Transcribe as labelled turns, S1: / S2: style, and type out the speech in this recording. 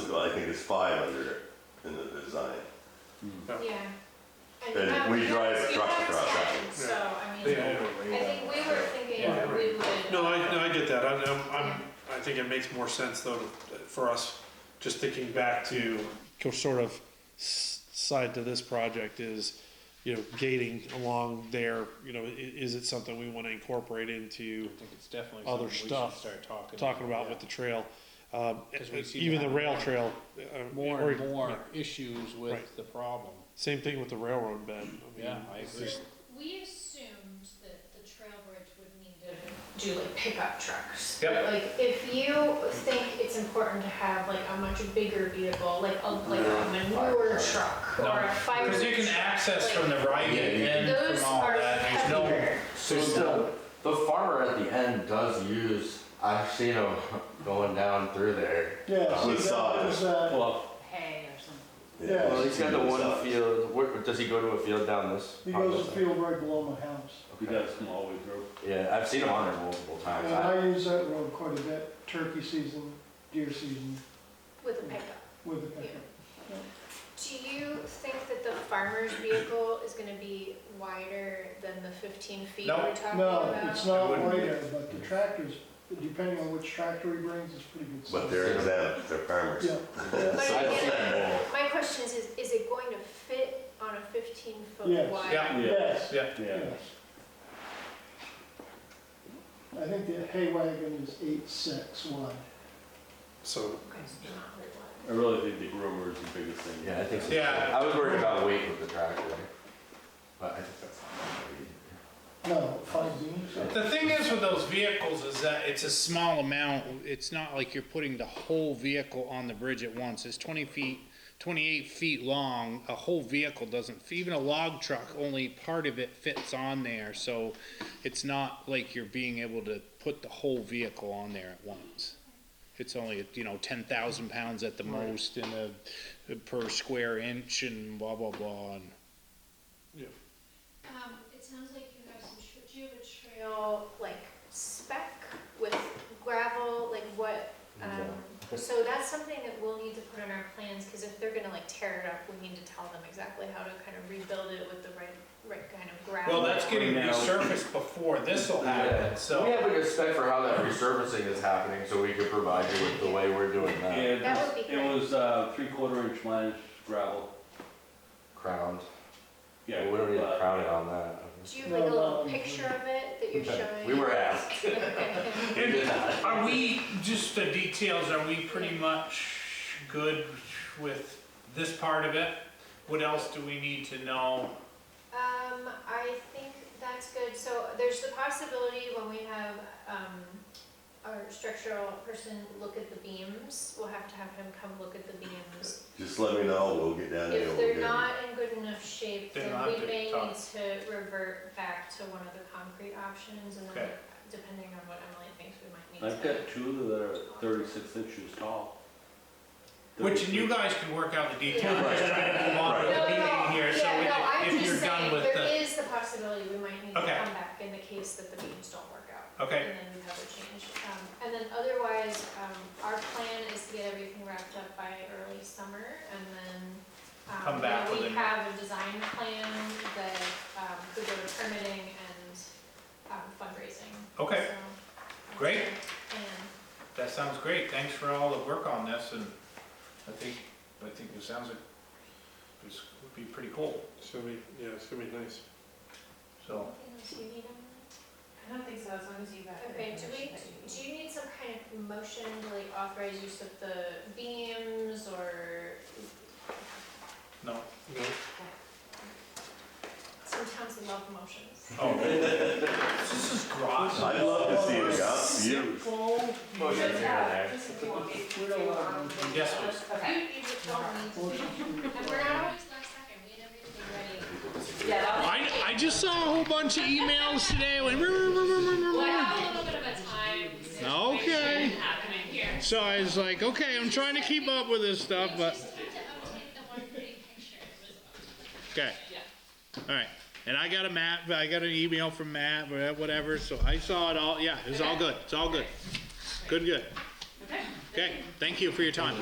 S1: think it's five under it in the design.
S2: Yeah.
S1: And
S2: that-
S1: we drive
S2: that's-
S1: a truck
S2: you have
S1: across that.
S2: 10, So, I mean,
S3: Yeah.
S2: I think we were
S3: Yeah.
S2: thinking we would.
S3: No, I, no, I get that. I, I'm, I'm, I think it makes more sense though, to- for us, just thinking back to co- sort of s- side to this project is, you know, gating along there, you know, i- is it something we want to incorporate into
S4: I think it's definitely
S3: Other
S4: something we should
S3: stuff.
S4: start talking.
S3: talking about with the trail? Um,
S4: 'Cause we seem to
S3: even the
S4: have
S3: rail
S4: more-
S3: trail. uh,
S4: More
S3: or-
S4: and more issues
S3: Right. Mm-hmm.
S4: with the problem.
S3: Same thing with the railroad bed. I mean,
S4: Yeah, I agree.
S2: So We assumed that the trail bridge would need to do like pickup trucks.
S4: Yep.
S2: Like, if you think it's important to have like a much bigger vehicle, like a, like a manure truck or a fire.
S4: Because you can
S2: truck,
S4: access from the right
S5: Yeah, you
S4: end
S2: Those
S4: from all
S2: are
S4: that. There's no,
S2: heavier.
S5: So still, the farmer at the end does use, I've seen him going down through there.
S6: Yeah, see,
S1: With
S6: that was, uh,
S5: Well,
S7: hay or something.
S6: Yeah.
S5: well, he's got the one
S1: Size.
S5: field, where, does he go to a field down this?
S6: he goes
S5: part?
S6: to field right below my house.
S8: You guys come all the way through.
S5: Yeah, I've seen him on there multiple times.
S6: And
S5: I-
S6: I use that road quite a bit, turkey season, deer season,
S2: With a pickup.
S6: with the pickup.
S2: Do you think that the farmer's vehicle is gonna be wider than the fifteen feet we're
S4: No.
S2: talking about?
S6: No, it's not
S4: It wouldn't be.
S6: wider, but the tractors, depending on which tractor he brings, it's pretty good.
S1: But they're exempt, they're farmers.
S6: Yeah, yeah.
S2: But
S5: I've seen
S2: again,
S5: him.
S2: my question is, is is it going to fit on a fifteen foot
S6: Yes.
S2: wide?
S4: yeah,
S6: yes,
S4: yeah.
S8: Yeah.
S6: yes. I think the hay wagon is eight six wide.
S3: So
S2: Okay, so it's not very wide.
S8: I really think the groomer is the biggest thing.
S5: Yeah, I think so.
S4: Yeah.
S5: I was worried about weight with the tractor, but I think that's not
S6: No, five beams.
S4: The thing is with those vehicles is that it's a small amount, it's not like you're putting the whole vehicle on the bridge at once, it's twenty feet, twenty-eight feet long, a whole vehicle doesn't, even a log truck, only part of it fits on there, so it's not like you're being able to put the whole vehicle on there at once. It's only, you know, ten thousand pounds at the most in a, per square inch and blah, blah, blah, and.
S2: Um, it sounds like you have some, tr- do you have a trail, like, spec with gravel, like what? um, So that's something that we'll need to put in our plans, because if they're gonna like tear it up, we need to tell them exactly how to kind of rebuild it with the right, right kind of gravel.
S5: getting
S4: resurfaced before this'll
S5: Yeah. We have a good spec for how that resurfacing is happening, so we could provide you with the way we're doing that.
S8: Yeah,
S2: That would
S8: it
S2: be
S8: was- it was, uh, three quarter inch minus gravel.
S5: Crowned.
S8: Yeah,
S5: We don't need to
S8: but-
S5: crown it on that.
S2: Do you have like a
S6: No,
S2: little
S6: no, no.
S2: picture of it that you're showing?
S5: We were asked.
S2: Okay.
S5: We did not.
S4: Are we, just the details, are we pretty much good with this part of it? What else do we need to know?
S2: Um, I think that's good, so there's the possibility when we have, um, our structural person look at the beams, we'll have to have him come look at the beams.
S1: Just let me know, we'll get down there.
S2: If
S1: we'll
S2: they're
S1: get it.
S2: not in good enough shape,
S4: They're
S2: then
S4: not
S2: we
S4: good,
S2: may
S4: Tom.
S2: need to revert back to one of the concrete options, and then
S4: Okay.
S2: depending on what Emily thinks, we might need to.
S8: I've got two that are thirty-six inches tall.
S4: Which, and you
S8: 36.
S4: guys can work out the details, I'm just trying to move on with
S2: No,
S4: the
S2: no,
S4: meeting here, so
S2: yeah, no, I'm
S4: if- if
S2: just
S4: you're done
S2: saying
S4: with
S2: There
S4: the.
S2: is the possibility we might need to
S4: Okay.
S2: come back in the case that the beams don't work out.
S4: Okay.
S2: And then we have a change. Um, And then otherwise, um, our plan is to get everything wrapped up by early summer and then. um,
S4: Come
S2: you
S4: back
S2: know,
S4: with
S2: We
S4: a-
S2: have a design plan that um, could go to permitting and um, fundraising.
S4: Okay.
S2: So, um,
S4: Great.
S2: and-
S4: That sounds great, thanks for all the work on this, and I think, I think it sounds like this would be pretty cool,
S3: it's gonna be yeah, it's gonna be nice.
S4: so.
S2: Anything else you need, Emily?
S7: I don't think so, as long as you've got. the
S2: Okay, do we,
S7: information that you need.
S2: do you need some kind of motion to like authorize use of the beams or
S4: No.
S3: No,
S2: some towns love motions?
S4: Oh. This is gross.
S1: I'd love to see
S5: Oh,
S1: it, Gus, you.
S5: Motion
S7: Just,
S5: here and there.
S7: uh, just if you want me
S6: We
S7: to,
S6: don't want
S7: um,
S6: them.
S4: Yes, please.
S2: You,
S7: Okay.
S2: you just don't need to. And we're not always last second, we had everything ready.
S7: Yeah, that'll.
S4: I, I just saw a whole bunch of emails today. When,
S9: Well, I have a little bit of a time
S4: Okay.
S9: situation happening here.
S4: so I was like, okay, I'm trying to keep up with this stuff, but
S9: Just had to update the one pretty picture. It was
S4: okay,
S9: Yeah.
S4: all right. And I got a map. I got an email from Matt, or whatever. So I saw it all. Yeah, it's all good. It's all good. Good, good.
S9: Okay.
S4: Okay, thank you for your time.